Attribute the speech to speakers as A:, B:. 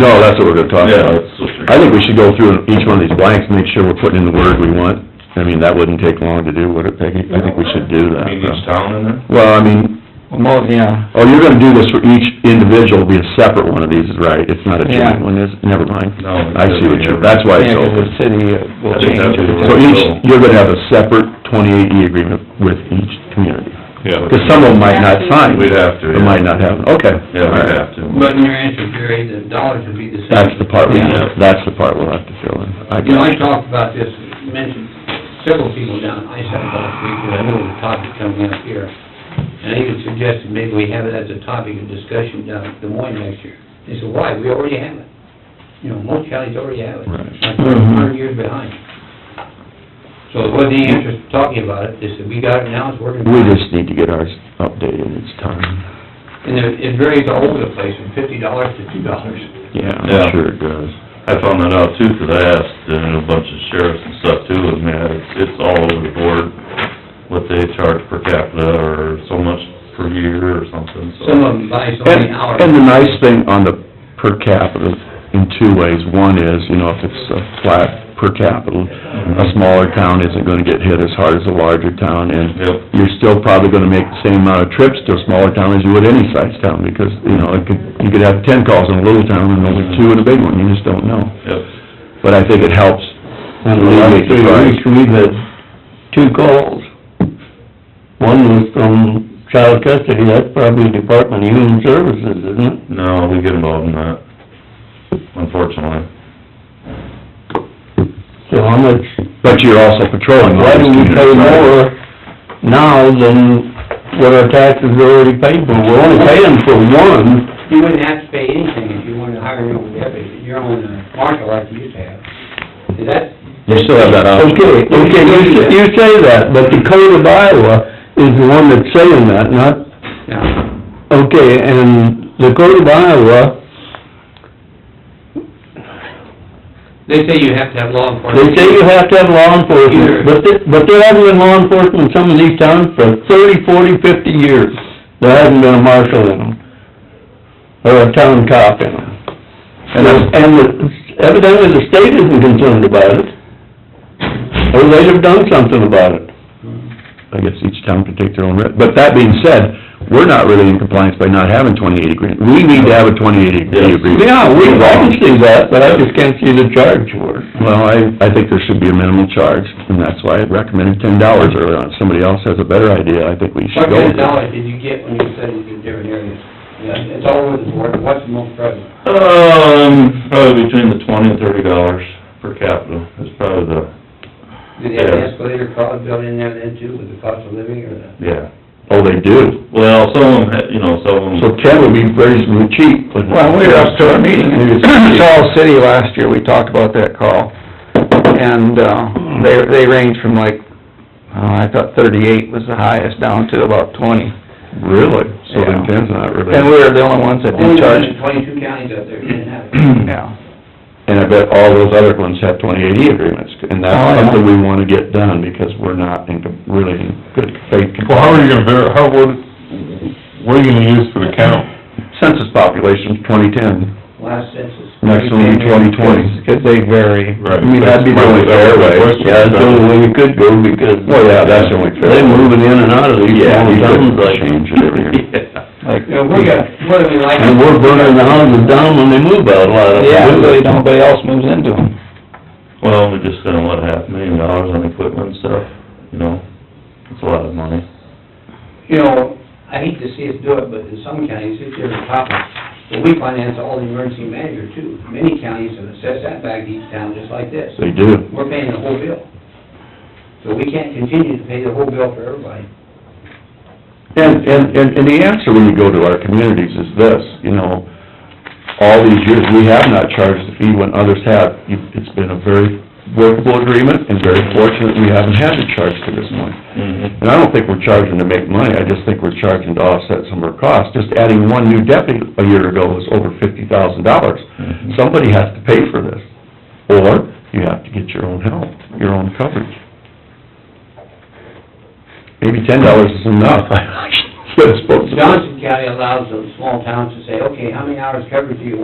A: No, that's what we're gonna talk
B: Yeah,
A: about.
B: that's what you're-
A: uh, I think we should go through each one of these blanks, make sure we're putting in the word we want. I mean, that wouldn't take long to do, would it, Peggy? I think we should do that.
B: You mean each town in there?
A: Well, I mean,
C: Well, yeah,
A: oh, you're gonna do this for each individual, be a separate one of these, is right? It's not a
C: Yeah.
A: joint one, is, never mind.
B: No,
A: I see what you're, that's why
C: yeah,
A: it's
C: 'cause
A: open.
C: the city uh, will
B: I think
C: change
B: that'd be
C: it.
B: the
A: So
B: way to
A: each,
B: go.
A: you're gonna have a separate twenty-eight E agreement with each community.
B: Yeah.
A: Because some of them might not sign.
B: We'd have to,
A: They
B: yeah.
A: might not have, okay.
B: Yeah,
A: All
B: we'd
A: right.
B: have to.
D: But in your answer, Jerry, the dollars would be the same.
A: That's the part, we
C: Yeah.
A: that's the part we'll have to fill in. I
D: You know, I
A: guess.
D: talked about this, mentioned several people down, I said about it, because I know the topic coming up here. And I even suggested maybe we have it as a topic of discussion down at Des Moines next year. They said, why? We already have it. You know, most counties already have it.
B: Right.
D: Like, we're a hundred years behind. So it wasn't any interest in talking about it, they said, we got it now, it's working.
A: We just need to get ours updated, it's time.
D: And it it varies all over the place, from fifty dollars to two dollars.
A: Yeah,
B: Yeah.
A: I'm sure it does.
B: I found that out too, 'cause I asked uh, a bunch of sheriffs and stuff too, and man, it's, it's all over the board, what they charge per capita, or so much per year or something, so.
D: Some of them buy so many hours.
A: And, and the nice thing on the per capita in two ways. One is, you know, if it's a flat per capita, a smaller town isn't gonna get hit as hard as a larger town, and
B: Yep.
A: you're still probably gonna make the same amount of trips to a smaller town as you would any size town, because, you know, it could, you could have ten calls in a little town and only two in a big one, you just don't know.
B: Yep,
A: But I think it helps alleviate the price.
C: Last week, we had two calls. One was from child custody, that's probably Department of Human Services, isn't it?
B: no, we get involved in that, unfortunately.
C: So how much,
A: But you're also patrolling all
C: why
A: these
C: do we pay
A: communities.
C: more now than what our taxes are already paid for? We're only paying for one.
D: You wouldn't have to pay anything if you wanted to hire your own deputy, your own uh, marshal like you used to have. Is that,
A: You still have that option.
C: Okay, okay, you, s- you say that, but the code of Iowa is the one that's saying that, not,
D: no,
C: okay, and the code of Iowa,
D: they say you have to have law
C: they
D: enforcement.
C: say you have to have law enforcement, but they, but there hasn't been law enforcement in some of these towns for thirty, forty, fifty years. There hasn't been a marshal in them, or a town cop in them. And, the- and the- evidently the state isn't concerned about it, or they'd have done something about it.
D: Mm-hmm.
A: I guess each town can take their own risk. But that being said, we're not really in compliance by not having twenty-eight agreement. We need to have a twenty-eight
B: Yes.
A: agreement.
C: Yeah, we can see that, but I just can't see the charge for it.
A: Well, I, I think there should be a minimal charge, and that's why I recommended ten dollars early on. If somebody else has a better idea, I think we
D: What
A: should go
D: kind
A: with
D: of
A: it.
D: dollars did you get when you studied in different areas? Yeah, It's all over the board, what's the most prevalent?
B: Um, probably between the twenty and thirty dollars per capita is probably the,
D: Did they have an
B: Yes.
D: escalator cost built in there then too, with the cost of living or the?
B: yeah.
A: Oh, they do.
B: Well, some of them, had- you know, some of them.
A: So ten would be reasonably cheap, but.
E: Well, we were up to our meeting in Charles City last year, we talked about that call. And, uh, they, they range from like, uh, I thought thirty-eight was the highest, down to about twenty.
A: Really? So then
E: Yeah.
A: ten's not really.
E: And we were the only ones that didn't
D: Only
E: charge,
D: one in Twenty-two counties out there didn't have it.
E: yeah.
A: And I bet all those other ones have twenty-eight E agreements, and
E: Oh,
A: that's
E: yeah.
A: something we wanna get done, because we're not in, com- really in good faith.
F: Well, how are you gonna ver, how, what, what are you gonna use for the count?
A: Census population, twenty-ten,
D: Last census.
A: next one, twenty-twenty.
E: Because they vary.
F: Right.
A: I mean, that'd be the only fair way.
C: Yeah, that's the only way we could go, because...
A: Well, yeah, that's the only fair.
C: They're moving in and out of these
A: Yeah,
C: small
A: we
C: towns,
A: could
C: like,
A: change it every year.
E: Like,
D: You know, we got, what do we like?
C: and we're burning the houses down when they move out, a lot of them.
E: yeah, really, nobody else moves into them.
B: Well, we just spent, what, half a million dollars on equipment and stuff, you know? It's a lot of money.
D: you know, I hate to see us do it, but in some counties, it's different topics. But we finance all the emergency manager too. Many counties have assessed that back to each town just like this.
A: They do.
D: We're paying the whole bill. So we can't continue to pay the whole bill for everybody.
A: And, and, and and the answer when you go to our communities is this, you know, all these years, we have not charged the fee when others have. You- It's been a very workable agreement, and very fortunate we haven't had to charge to this point.
B: Mm-hmm.
A: And I don't think we're charging to make money, I just think we're charging to offset some of our costs. Just adding one new deputy a year ago was over fifty thousand dollars.
B: Mhm.
A: Somebody has to pay for this, or you have to get your own help, your own coverage. Maybe ten dollars is enough, I should've spoken.
D: Johnson County allows those small towns to say, okay, how many hours coverage do you want?